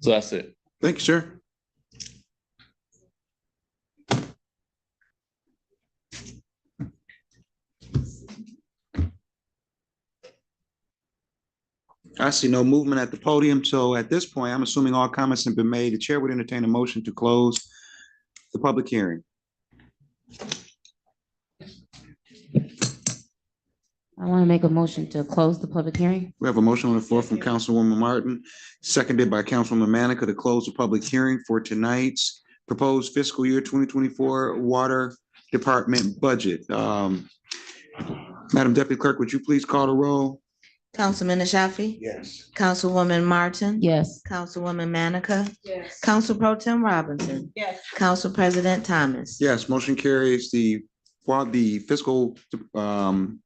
So that's it. Thank you, sir. I see no movement at the podium, so at this point, I'm assuming all comments have been made. The chair would entertain a motion to close the public hearing. I want to make a motion to close the public hearing. We have a motion on the floor from Councilwoman Martin, seconded by Councilwoman Manica to close the public hearing for tonight's proposed fiscal year twenty twenty-four Water Department budget. Um, Madam Deputy Clerk, would you please call the roll? Councilman Ashafi? Yes. Councilwoman Martin? Yes. Councilwoman Manica? Yes. Council Pro Tim Robinson? Yes. Council President Thomas? Yes, motion carries the, while the fiscal um,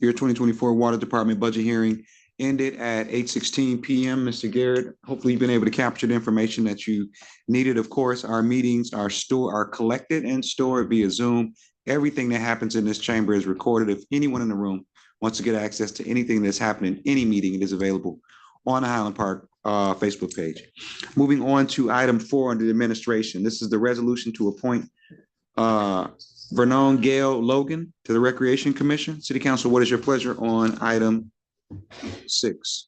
year twenty twenty-four Water Department budget hearing ended at eight sixteen PM. Mr. Garrett, hopefully you've been able to capture the information that you needed. Of course, our meetings are store, are collected and stored via Zoom. Everything that happens in this chamber is recorded. If anyone in the room wants to get access to anything that's happened in any meeting, it is available on the Highland Park uh, Facebook page. Moving on to item four under the administration. This is the resolution to appoint uh, Vernon Gale Logan to the Recreation Commission. City Council, what is your pleasure on item six?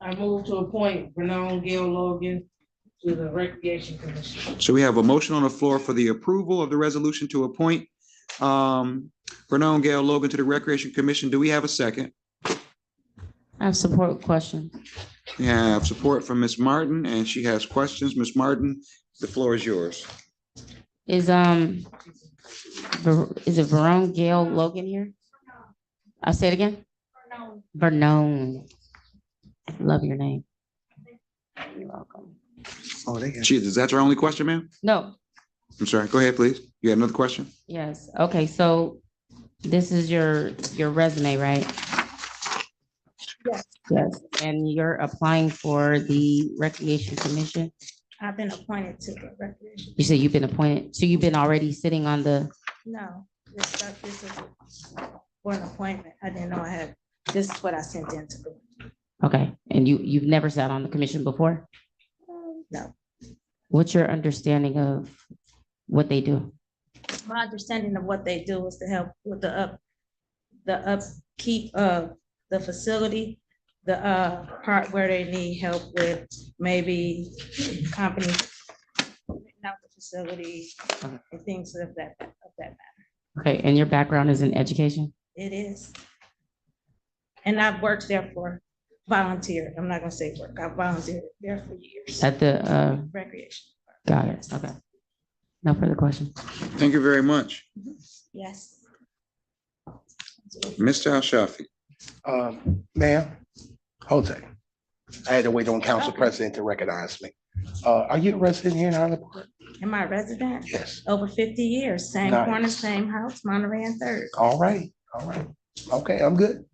I move to appoint Renan Gail Logan to the Recreation Commission. So we have a motion on the floor for the approval of the resolution to appoint um, Vernon Gale Logan to the Recreation Commission. Do we have a second? I have support question. We have support from Ms. Martin, and she has questions. Ms. Martin, the floor is yours. Is, um, Ver- is it Verone Gail Logan here? I'll say it again. Vernone. Love your name. You're welcome. Oh, they got. She, is that your only question, ma'am? No, I'm sorry. Go ahead, please. You had another question? yes. Okay, so this is your, your resume, right? Yes. Yes, and you're applying for the Recreation Commission? I've been appointed to the recreation. You said you've been appointed, so you've been already sitting on the, No, this stuff, this is for an appointment. I didn't know I had, this is what I sent in to the, okay, and you, you've never sat on the commission before? no. What's your understanding of what they do? My understanding of what they do is to help with the up, the upkeep of the facility, the uh part where they need help with maybe company, not the facility and things of that, of that Okay, and your background is in education? It is. And I've worked there for volunteer. I'm not gonna say work. I volunteered there for years. At the, uh, Recreation. got it, okay. No further questions. Thank you very much. Yes. Mr. Al Shafi. Um, ma'am, hold it. I had to wait on council president to recognize me. Uh, are you a resident here in Highland Park? Am I a resident? Yes. Over fifty years, same Nice. corner, same house, Monterey and Third. All right, all right. Okay, I'm good.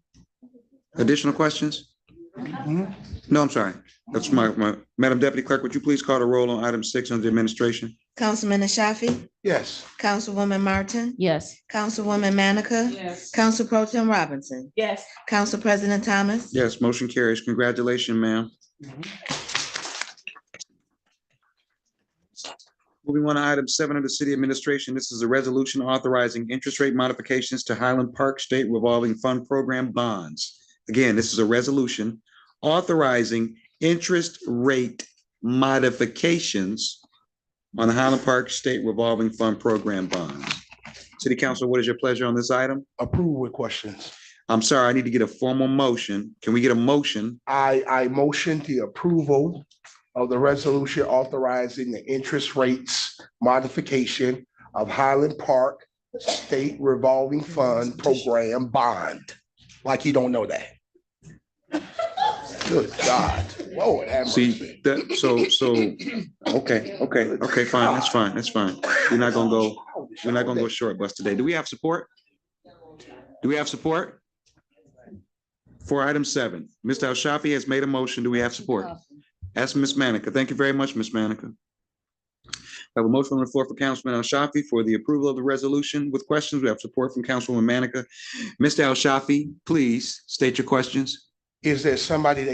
Additional questions? Mhm. No, I'm sorry. That's my, my, Madam Deputy Clerk, would you please call the roll on item six under administration? Councilman Ashafi? Yes. Councilwoman Martin? Yes, Councilwoman Manica? Yes. Council Pro Tim Robinson? Yes. Council President Thomas? Yes, motion carries. Congratulations, ma'am. Moving on to item seven under city administration, this is a resolution authorizing interest rate modifications to Highland Park State Revolving Fund Program bonds. Again, this is a resolution authorizing interest rate modifications on the Highland Park State Revolving Fund Program bonds. City Council, what is your pleasure on this item? Approve with questions. I'm sorry, I need to get a formal motion. Can we get a motion? I, I motion the approval of the resolution authorizing the interest rates modification of Highland Park State Revolving Fund Program Bond. Like you don't know that. Good God. Lord have See, mercy. that, so, so, okay, okay, okay, fine, that's fine, that's fine. We're not gonna go, we're not gonna go short bus today. Do we have support? Do we have support? For item seven, Mr. Al Shafi has made a motion. Do we have support? That's Ms. Manica. Thank you very much, Ms. Manica. I have a motion on the floor for Councilman Al Shafi for the approval of the resolution with questions. We have support from Councilwoman Manica. Mr. Al Shafi, please state your questions. Is there somebody that